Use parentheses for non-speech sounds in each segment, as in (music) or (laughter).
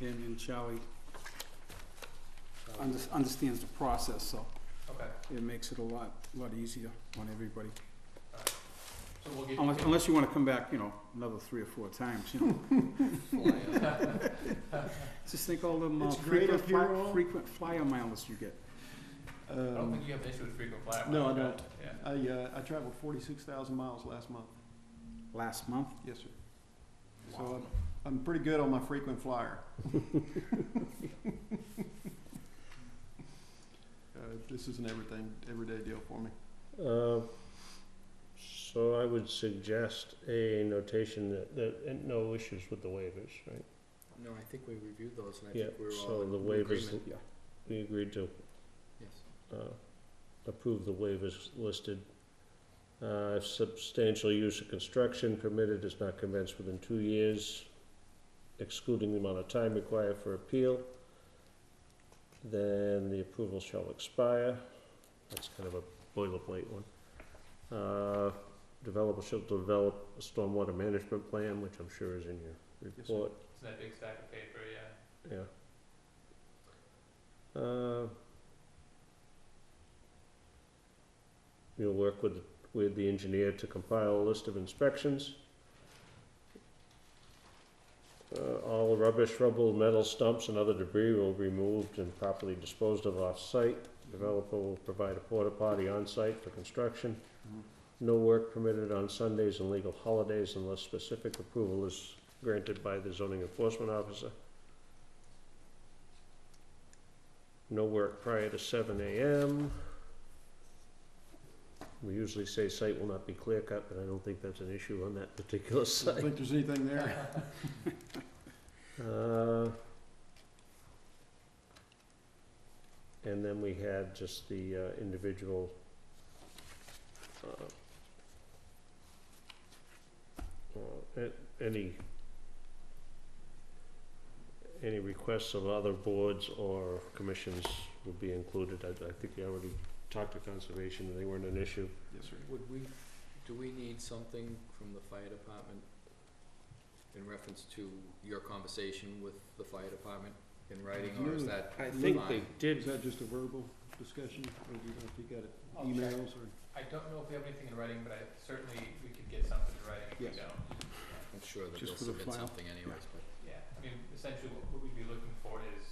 and and Charlie under- understands the process, so Okay, it makes it a lot, lot easier on everybody. so we'll give you. Unless, unless you (laughs) wanna come back, you know, another three or four times, you (laughs) know. Just think all them uh, It's great frequent, up here, fly- all. frequent flyer miles you get. I don't Um, think you have an issue with frequent flyer miles. No, I right? don't. Yeah. I, uh, I traveled forty-six thousand miles last month. Last month, Yes, sir. So uh, I'm- I'm pretty good on my frequent flyer. Uh, This is an everything, everyday deal for me. Uh, So I would suggest a notation that, that, and no issues with the waivers, right? No, I think we reviewed those and I Yeah, think we were all so in the waivers, agreement. we agreed to, Yes. uh, approve the waivers listed. Uh, if substantial use of construction permitted is not commenced within two years, excluding the amount of time required for appeal, then the approval shall expire. That's kind of a boilerplate one. Uh, developer shall develop a stormwater management plan, which I'm sure is in your Yes, sir. report, It's that big stack of paper, yeah. yeah. Uh, You'll work with, with the engineer to compile a list of inspections. Uh, all rubbish, rubble, metal stumps and other debris will be removed and properly disposed of off-site. Developer will provide a porta potty on-site for construction. Mm-hmm. No work permitted on Sundays and legal holidays unless specific approval is granted by the zoning enforcement officer. No work prior to seven AM. We usually say site will not be clear cut, but I don't think that's an issue on that particular (laughs) I don't site. think there's anything there. Uh, And then we had just the uh, individual uh, uh, a- any any requests of other boards or commissions would be included. I I think we already talked to conservation, and they weren't an issue. Yes, sir. Would we, do we need something from the fire department in reference to your conversation with the fire department in writing, or is No, that I think think they they Is did. that just a verbal discussion, or do you, if you got it, Oh, I'll check. emails or? I don't know if we have anything in writing, but I certainly, we could get something in writing if we Yes. don't. I'm sure that Just for they'll the submit file. something anyways, but. Yeah, I mean, essentially what what we'd be looking for is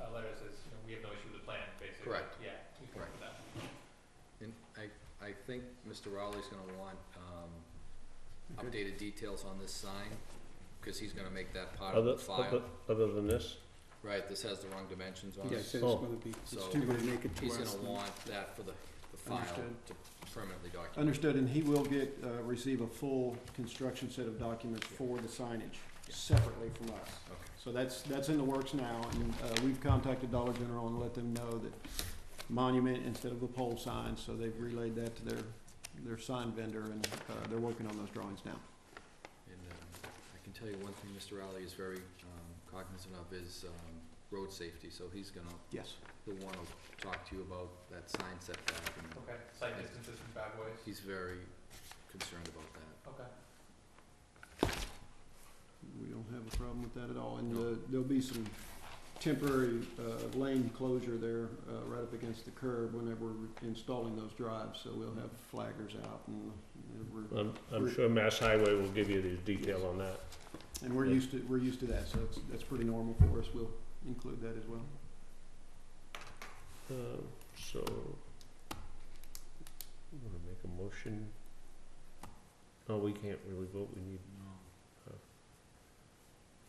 a letter that says, you know, we have no issue with the plan, basically. Correct. Yeah, we can work with that. And I, I think Mr. Rowley's gonna want, um, Okay. updated details on this sign, cause he's gonna make that part of Other, the file. other, other than this, Right, this has the wrong dimensions on yeah, it. it says it's Oh. gonna be, So- it's too gonna make it to He's us. gonna want that for the, the file Understood. to permanently document. Understood, and he will get, uh, receive a full construction set of documents for the signage, Yeah. separately from us. Okay. So that's, that's in the works now, and uh, we've contacted Dollar General and let them know that monument instead of the pole sign, so they've relayed that to their, their sign vendor, and uh, they're working on those drawings now. And um, I can tell you one thing Mr. Rowley is very um, cognizant of is um, road safety, so he's gonna, Yes. he'll wanna talk to you about that sign setback, and Okay, site distances from bad boys, he's very concerned about that. okay. We don't have a problem with that at all, and uh, there'll be some temporary uh, lane closure there, uh, right up against the curb whenever we're installing those drives, so we'll have flaggers out, and we're, I'm, I'm sure Mass Highway will give you the detail on that. and we're used to, we're used to that, so that's, that's pretty normal for us, we'll include that as well. Um, So, I'm gonna make a motion. Oh, we can't really vote, we need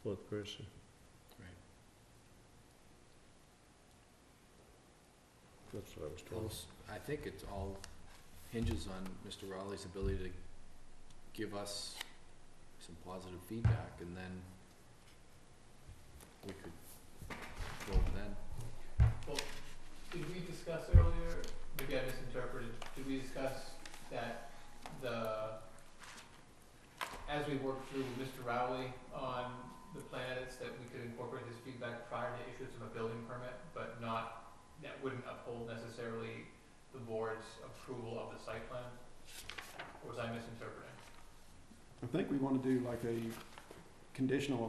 fourth person. Right. That's what I was told. Also, I think it all hinges on Mr. Rowley's ability to give us some positive feedback, and then we could vote then. Did we discuss earlier, maybe I misinterpreted, did we discuss that the, as we worked through with Mr. Rowley on the planets, that we could incorporate his feedback prior to issuance of a building permit, but not, that wouldn't uphold necessarily the board's approval of the site plan? Or was I misinterpreting? I think we wanna do like a conditional